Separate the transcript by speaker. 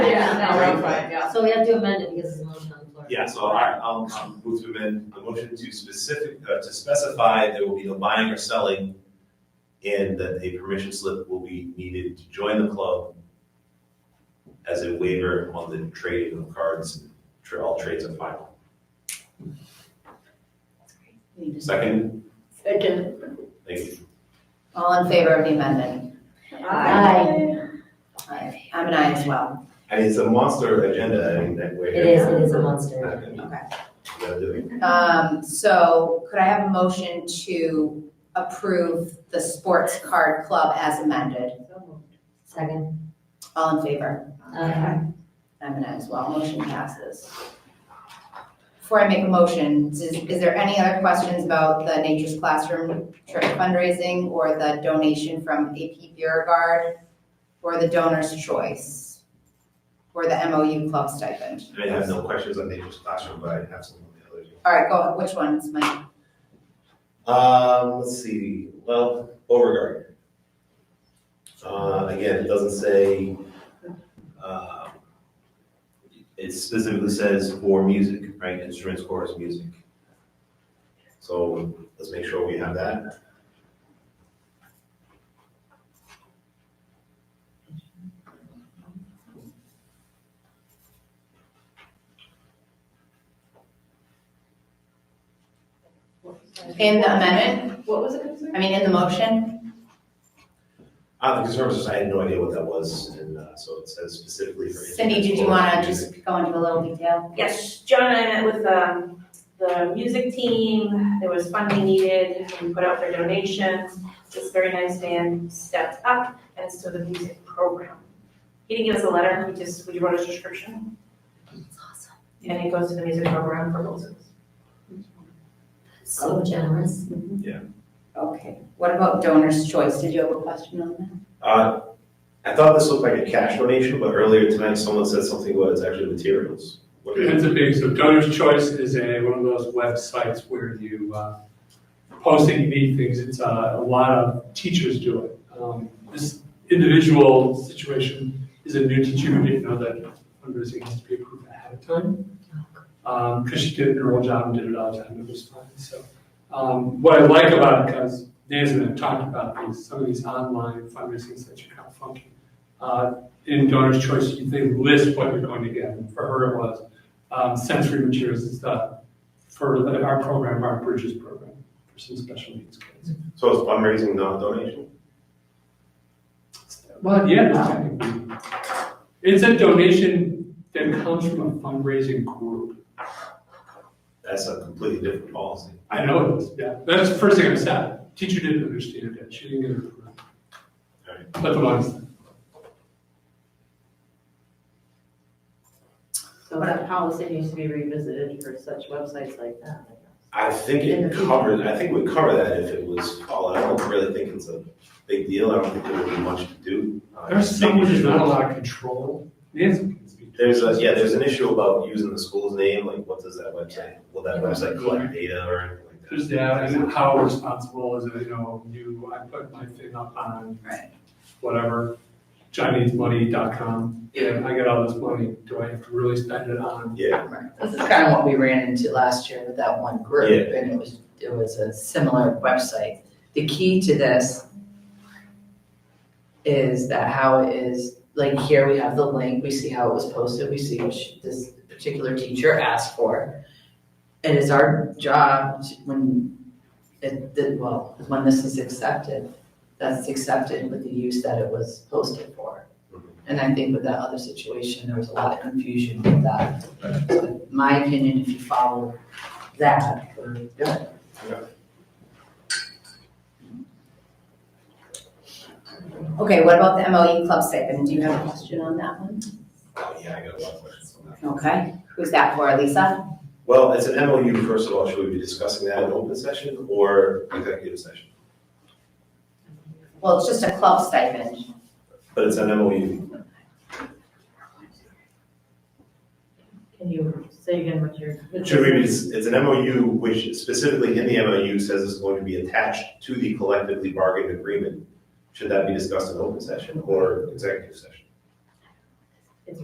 Speaker 1: now, round five, yeah.
Speaker 2: So we have to amend it because it's a motion on the floor.
Speaker 3: Yeah, so I, I'll, I'll move to amend the motion to specific, uh, to specify there will be no buying or selling and that a permission slip will be needed to join the club as a waiver on the trading of cards, tra- all trades are final. Second,
Speaker 4: Second.
Speaker 3: thank you.
Speaker 4: All in favor of the amendment? Aye. Aye. I'm an aye as well.
Speaker 3: I mean, it's a monster agenda, I mean, that way.
Speaker 2: It is, it is a monster.
Speaker 3: Not gonna be-
Speaker 4: Okay.
Speaker 3: gotta do it.
Speaker 4: Um, so could I have a motion to approve the sports card club as amended?
Speaker 2: Second.
Speaker 4: All in favor?
Speaker 2: Aye.
Speaker 4: I'm an aye as well. Motion passes. Before I make a motion, is, is there any other questions about the Nature's Classroom trip fundraising or the donation from AP Beauregard or the donor's choice or the MOU club stipend?
Speaker 3: I mean, I have no questions on Nature's Classroom, but I have some on the other.
Speaker 4: All right, go, which one's mine?
Speaker 3: Um, let's see, well, Beauregard. Uh, again, it doesn't say, uh, it specifically says for music, right, instruments, chorus, music. So let's make sure we have that.
Speaker 4: In the amendment,
Speaker 1: What was the concern?
Speaker 4: I mean, in the motion?
Speaker 3: Uh, the conservators, I had no idea what that was, and, uh, so it says specifically for.
Speaker 4: Cindy,
Speaker 3: instruments,
Speaker 4: did you
Speaker 3: chorus,
Speaker 4: wanna
Speaker 3: music.
Speaker 4: just go into a little detail?
Speaker 5: Yes, John and I met with um, the music team, there was funding needed, we put out their donations. This very nice man stepped up and it's to the music program. He didn't give us a letter, we just, we wrote a description. And it goes to the music program for Wilson's.
Speaker 2: So generous.
Speaker 4: Okay, what about donor's choice? Did you have a question on that?
Speaker 3: Uh, I thought this looked like a cash donation, but earlier tonight someone said something about it's actually materials. What is it?
Speaker 6: It's a big, so Donor's Choice is a, one of those websites where you, uh, post that you need things, it's, uh, a lot of teachers do it. Um, This individual situation is a new teacher who didn't know that fundraising has to be approved ahead of time. Um, cause she did her own job and did it all the time, it was fine, so. Um, what I like about it, cause Nancy and I have talked about these, some of these online fundraising sites are kind of funky. Uh, in Donor's Choice, they list what you're going to get, and for her it was um, sensory materials and stuff for the- our program, our Bridges program, for some special needs kids.
Speaker 3: So it's fundraising, not donation?
Speaker 6: Well, yeah, it's technically- it's a donation that comes from a fundraising group.
Speaker 3: That's a completely different policy.
Speaker 6: I know it is, yeah. That's the first thing I said. Teacher didn't understand it. She didn't get it.
Speaker 3: Alright.
Speaker 6: But the lines,
Speaker 1: So that policy needs to be revisited for such websites like that.
Speaker 3: I think it covered, I think we cover that if it was called, I don't really think it's a big deal, I don't think there would be much to do. Uh,
Speaker 6: there's
Speaker 3: just
Speaker 6: some which
Speaker 3: making
Speaker 6: is
Speaker 3: sure-
Speaker 6: not a lot of control. Nancy can speak.
Speaker 3: There's a, yeah, there's an issue about using the school's name, like what does that website, will that website collect data or anything like that?
Speaker 6: There's that, and then how responsible is it, you know, you, I put my thing up on
Speaker 4: Right.
Speaker 6: whatever, ChineseMoney.com, and I get all this money, do I have to really spend it on?
Speaker 3: Yeah,
Speaker 1: This is kind of what we ran into last year with that one group,
Speaker 3: Yeah.
Speaker 1: and it was, it was a similar website. The key to this is that how it is, like here we have the link, we see how it was posted, we see what she- this particular teacher asked for. It is our job to- when, it, that- well, when this is accepted, that's accepted with the use that it was posted for.
Speaker 3: Mhm.
Speaker 1: And I think with that other situation, there was a lot of confusion with that. So my opinion, if you follow that, uh, or
Speaker 4: Okay, what about the MOU club stipend? Do you have a question on that one?
Speaker 3: oh, yeah, I got a lot of questions on that.
Speaker 4: Okay, who's that for, Lisa?
Speaker 3: Well, it's an MOU, first of all, should we be discussing that in open session or executive session?
Speaker 4: Well, it's just a club stipend.
Speaker 3: But it's an MOU.
Speaker 7: Can you say again what you're?
Speaker 3: Should we, be- it's an MOU which specifically in the MOU says it's going to be attached to the collectively bargained agreement. Should that be discussed in open session or executive session?